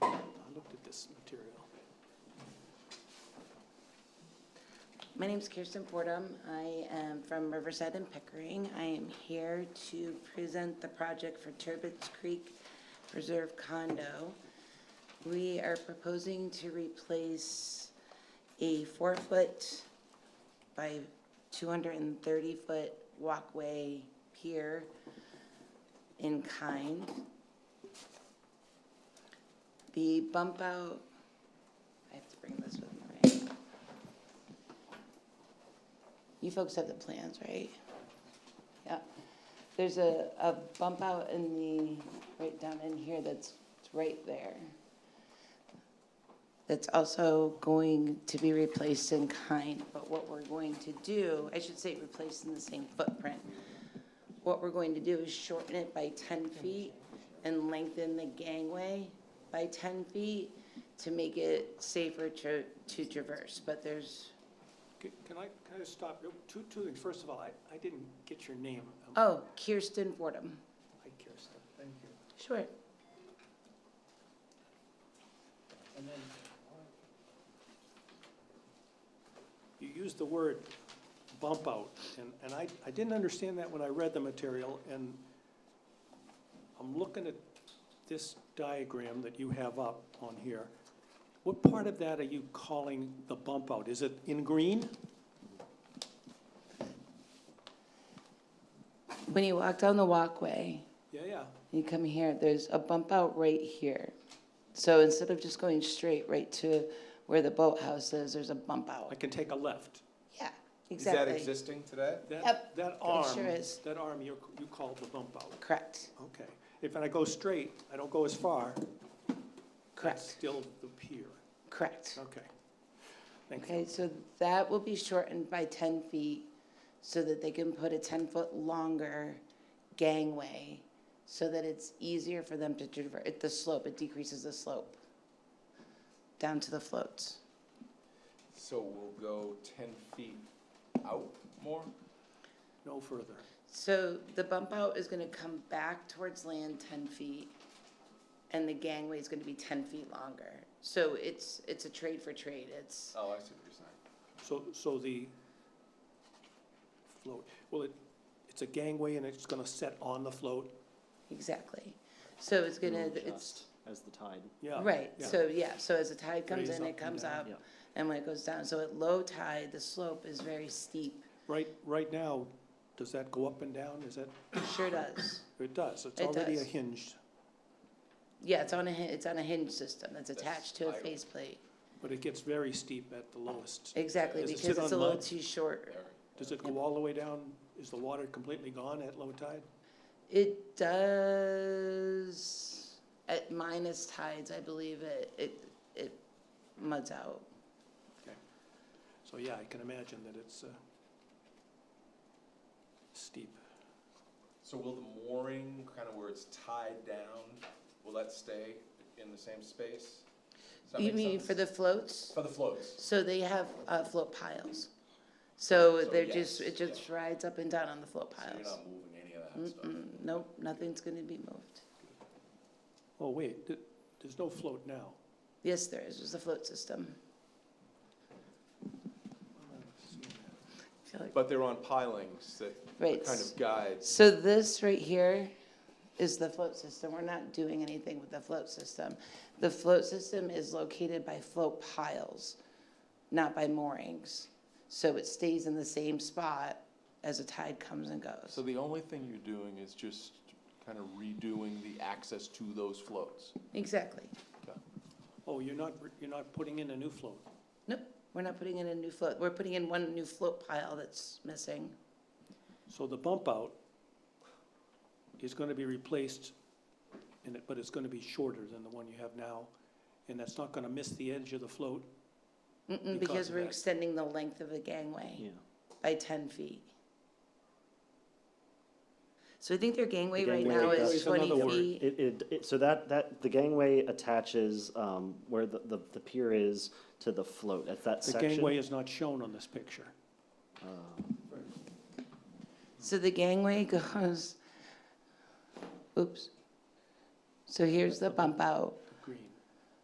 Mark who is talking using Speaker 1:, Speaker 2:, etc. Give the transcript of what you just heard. Speaker 1: My name's Kirsten Fordham. I am from Riverside and Pickering. I am here to present the project for Turbot's Creek Preserve condo. We are proposing to replace a four-foot by 230-foot walkway pier in kind. The bump out, I have to bring this with me, right? You folks have the plans, right? Yeah. There's a, a bump out in the, right down in here that's, it's right there. That's also going to be replaced in kind, but what we're going to do, I should say replaced in the same footprint. What we're going to do is shorten it by ten feet and lengthen the gangway by ten feet to make it safer to, to traverse, but there's,
Speaker 2: Can can I, can I just stop? Two, two things. First of all, I, I didn't get your name. Um,
Speaker 1: oh, Kirsten Fordham.
Speaker 2: Hi, Kirsten. Thank you.
Speaker 1: Sure.
Speaker 2: And then uh, you used the word bump out, and, and I, I didn't understand that when I read the material, and I'm looking at this diagram that you have up on here. What part of that are you calling the bump out? Is it in green?
Speaker 1: When you walk down the walkway,
Speaker 2: Yeah, yeah.
Speaker 1: you come here, there's a bump out right here. So instead of just going straight right to where the boathouse is, there's a bump
Speaker 2: I
Speaker 1: out.
Speaker 2: can take a left.
Speaker 1: Yeah,
Speaker 3: Is that
Speaker 1: exactly.
Speaker 3: existing today?
Speaker 2: That,
Speaker 1: Yep,
Speaker 2: that arm,
Speaker 1: sure is.
Speaker 2: that arm you, you call the bump out.
Speaker 1: Correct,
Speaker 2: Okay. If I go straight, I don't go as far. that's
Speaker 1: correct,
Speaker 2: Still the pier.
Speaker 1: correct.
Speaker 2: Okay. Thank you.
Speaker 1: Okay, so that will be shortened by ten feet so that they can put a ten-foot longer gangway so that it's easier for them to traverse, the slope, it decreases the slope down to the floats.
Speaker 3: So we'll go ten feet out more?
Speaker 2: No further.
Speaker 1: So the bump out is gonna come back towards land ten feet, and the gangway is gonna be ten feet longer. So it's, it's a trade for trade, it's,
Speaker 3: Oh, I see what you're saying.
Speaker 2: So, so the float, well, it, it's a gangway and it's gonna set on the float?
Speaker 1: exactly. So it's gonna,
Speaker 4: It'll
Speaker 1: it's,
Speaker 4: adjust As the tide.
Speaker 2: Yeah.
Speaker 1: right,
Speaker 2: yeah.
Speaker 1: so, yeah, so as the tide comes
Speaker 2: Raise
Speaker 1: in,
Speaker 2: up
Speaker 1: it
Speaker 2: and
Speaker 1: comes
Speaker 2: down,
Speaker 1: up,
Speaker 4: yeah.
Speaker 1: and when it goes down, so at low tide, the slope is very steep.
Speaker 2: Right, right now, does that go up and down? Is that,
Speaker 1: It Sure does.
Speaker 2: it does. It's
Speaker 1: It
Speaker 2: already a
Speaker 1: does.
Speaker 2: hinged,
Speaker 1: Yeah, it's on a, hin- it's on a hinge system, it's
Speaker 3: That's
Speaker 1: attached to a
Speaker 3: spiral.
Speaker 1: faceplate.
Speaker 2: but it gets very steep at the lowest.
Speaker 1: Exactly,
Speaker 2: Does it
Speaker 1: because
Speaker 2: sit
Speaker 1: it's a
Speaker 2: on
Speaker 1: little
Speaker 2: mud?
Speaker 1: too short.
Speaker 2: Does it go all the way down? Is the water completely gone at low tide?
Speaker 1: It does, at minus tides, I believe it, it, it muds out.
Speaker 2: So, yeah, I can imagine that it's, uh, steep.
Speaker 3: So will the mooring, kind of where it's tied down, will that stay in the same space? Does that
Speaker 1: You
Speaker 3: make
Speaker 1: mean
Speaker 3: sense?
Speaker 1: for the floats?
Speaker 3: For the floats?
Speaker 1: So they have, uh, float piles. So
Speaker 3: So
Speaker 1: they're just,
Speaker 3: yes,
Speaker 1: it just rides up and down on the float
Speaker 3: So you're
Speaker 1: piles.
Speaker 3: not moving any of that stuff?
Speaker 1: Mm-mm, nope, nothing's gonna be moved.
Speaker 2: Oh, wait, th- there's no float now.
Speaker 1: Yes, there is, there's a float system. I feel like-
Speaker 3: But they're on pilings that
Speaker 1: Right,
Speaker 3: kind of guides.
Speaker 1: So this right here is the float system. We're not doing anything with the float system. The float system is located by float piles, not by moorings. So it stays in the same spot as a tide comes and goes.
Speaker 5: So the only thing you're doing is just kind of redoing the access to those floats.
Speaker 1: Exactly.
Speaker 2: Oh, you're not, you're not putting in a new float?
Speaker 1: Nope, we're not putting in a new float. We're putting in one new float pile that's missing.
Speaker 2: So the bump out is gonna be replaced, and it, but it's gonna be shorter than the one you have now, and that's not gonna miss the edge of the float?
Speaker 1: Mm-mm,
Speaker 2: Because
Speaker 1: because
Speaker 2: of
Speaker 1: we're
Speaker 2: that.
Speaker 1: extending the length of the gangway
Speaker 4: Yeah.
Speaker 1: by ten feet. So I think their gangway right
Speaker 4: gangway
Speaker 1: now is
Speaker 2: is another
Speaker 1: twenty
Speaker 2: word.
Speaker 1: feet.
Speaker 4: It, it, it, so that, that, the gangway attaches, um, where the, the, the pier is to the float, at that
Speaker 2: The
Speaker 4: section.
Speaker 2: gangway is not shown on this picture.
Speaker 1: So the gangway goes, oops. So here's the bump out.